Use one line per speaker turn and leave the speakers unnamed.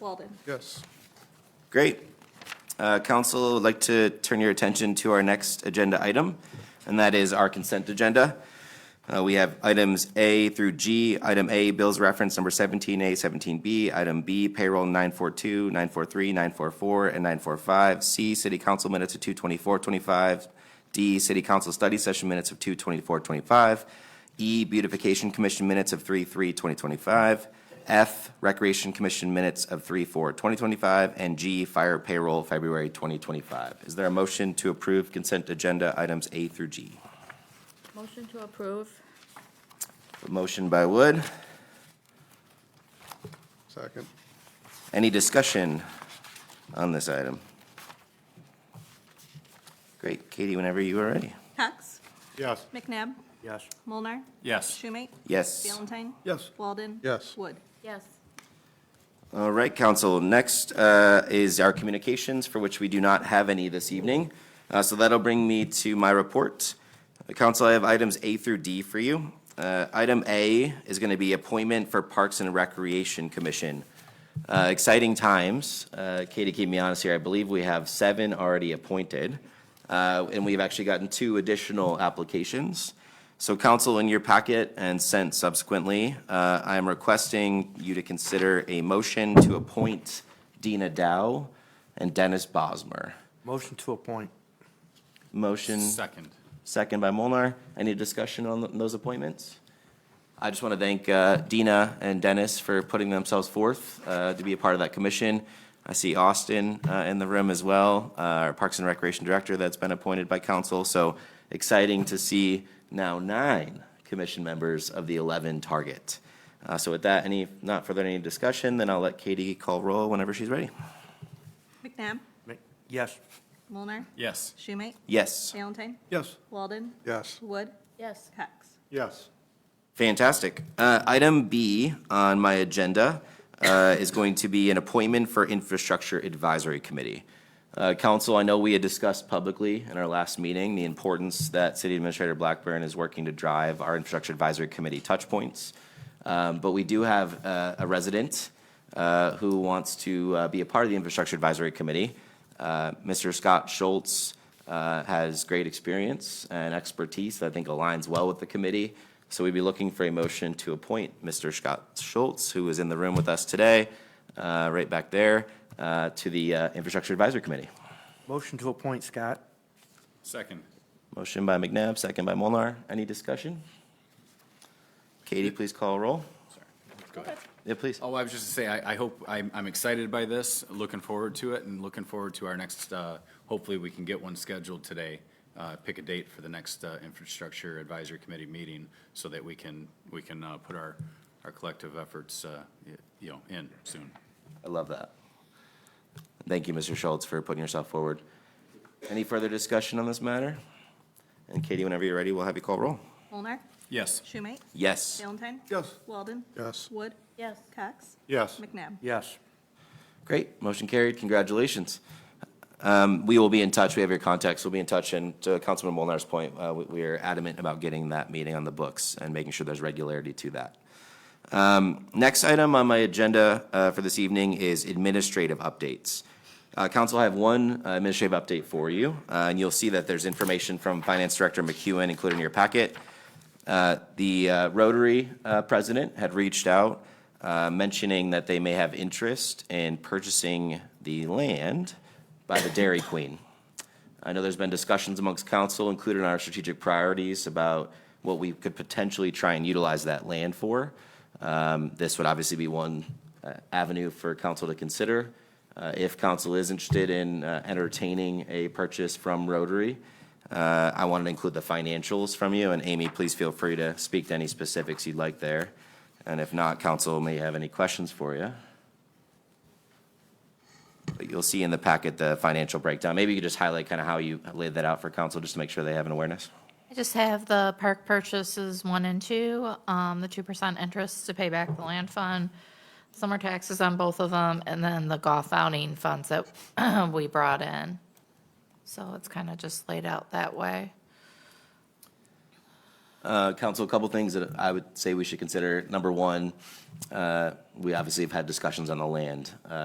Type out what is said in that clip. Walden.
Yes.
Great. Uh, Council, would like to turn your attention to our next agenda item, and that is our consent agenda. Uh, We have items A through G. Item A, bills reference number 17A, 17B. Item B, payroll 942, 943, 944, and 945. C, city council minutes of 22425. D, city council study session minutes of 22425. E, beautification commission minutes of 3/3/2025. F, recreation commission minutes of 3/4/2025. And G, fire payroll February 2025. Is there a motion to approve consent agenda items A through G?
Motion to approve.
A Motion by Wood.
Second.
Any discussion on this item? Great, Katie, whenever you are ready.
Cox.
Yes.
McNabb.
Yes.
Mulnar.
Yes.
Schumate.
Yes.
Valentine.
Yes.
Walden.
Yes.
Wood.
Yes.
All right, council. Next uh, is our communications, for which we do not have any this evening. Uh, So that'll bring me to my report. Uh, Council, I have items A through D for you. Uh, Item A is going to be appointment for Parks and Recreation Commission. Uh, Exciting times. Uh, Katie, keep me honest here. I believe we have seven already appointed, uh, and we've actually gotten two additional applications. So council, in your packet and sent subsequently, uh, I am requesting you to consider a motion to appoint Dina Dow and Dennis Bosmer.
Motion to appoint.
Motion,
Second.
second by Molnar. Any discussion on th- those appointments? I just want to thank uh, Dina and Dennis for putting themselves forth uh, to be a part of that commission. I see Austin uh, in the room as well, uh, our Parks and Recreation Director that's been appointed by council. So exciting to see now nine commission members of the 11 target. Uh, So with that, any, not further any discussion, then I'll let Katie call roll whenever she's ready.
McNabb.
Ma- Yes.
Mulnar.
Yes.
Schumate.
Yes.
Valentine.
Yes.
Walden.
Yes.
Wood.
Yes.
Cox.
Yes.
Fantastic. Uh, Item B on my agenda uh, is going to be an appointment for Infrastructure Advisory Committee. Uh, Council, I know we had discussed publicly in our last meeting the importance that City Administrator Blackburn is working to drive our Infrastructure Advisory Committee touchpoints. Um, But we do have uh, a resident uh, who wants to uh, be a part of the Infrastructure Advisory Committee. Uh, Mr. Scott Schultz uh, has great experience and expertise that I think aligns well with the committee. So we'd be looking for a motion to appoint Mr. Scott Schultz, who is in the room with us today, uh, right back there, uh, to the uh, Infrastructure Advisory Committee.
Motion to appoint, Scott.
Second.
Motion by McNabb, second by Molnar. Any discussion? Katie, please call roll.
Sorry. Go ahead.
Yeah, please.
Oh, I was just to say, I, I hope, I'm, I'm excited by this, looking forward to it, and looking forward to our next, uh, hopefully we can get one scheduled today. Uh, pick a date for the next, uh, Infrastructure Advisory Committee meeting, so that we can, we can, uh, put our, our collective efforts, uh, y- you know, in soon.
I love that. Thank you, Mr. Schultz, for putting yourself forward. Any further discussion on this matter? And Katie, whenever you're ready, we'll have you call roll.
Mulnar.
Yes.
Schumate.
Yes.
Valentine.
Yes.
Walden.
Yes.
Wood.
Yes.
Cox.
Yes.
McNabb.
Yes.
Great, motion carried, congratulations. Um, We will be in touch, we have your contacts, we'll be in touch, and to Councilman Molnar's point, uh, we- we are adamant about getting that meeting on the books and making sure there's regularity to that. Um, Next item on my agenda uh, for this evening is administrative updates. Uh, Council, I have one uh, administrative update for you, uh, and you'll see that there's information from Finance Director McEwen included in your packet. Uh, The uh, Rotary uh, president had reached out uh, mentioning that they may have interest in purchasing the land by the Dairy Queen. I know there's been discussions amongst council, included in our strategic priorities, about what we could potentially try and utilize that land for. Um, This would obviously be one uh, avenue for council to consider. Uh, If council is interested in uh, entertaining a purchase from Rotary, uh, I wanted to include the financials from you, and Amy, please feel free to speak to any specifics you'd like there. And if not, council may have any questions for you. But you'll see in the packet the financial breakdown. Maybe you could just highlight kind of how you laid that out for council, just to make sure they have an awareness.
I just have the park purchases one and two, um, the two percent interest to pay back the land fund, summer taxes on both of them, and then the golf outing funds that we brought in. So it's kind of just laid out that way.
Uh, Council, a couple things that I would say we should consider. Number one, uh, we obviously have had discussions on the land. Uh,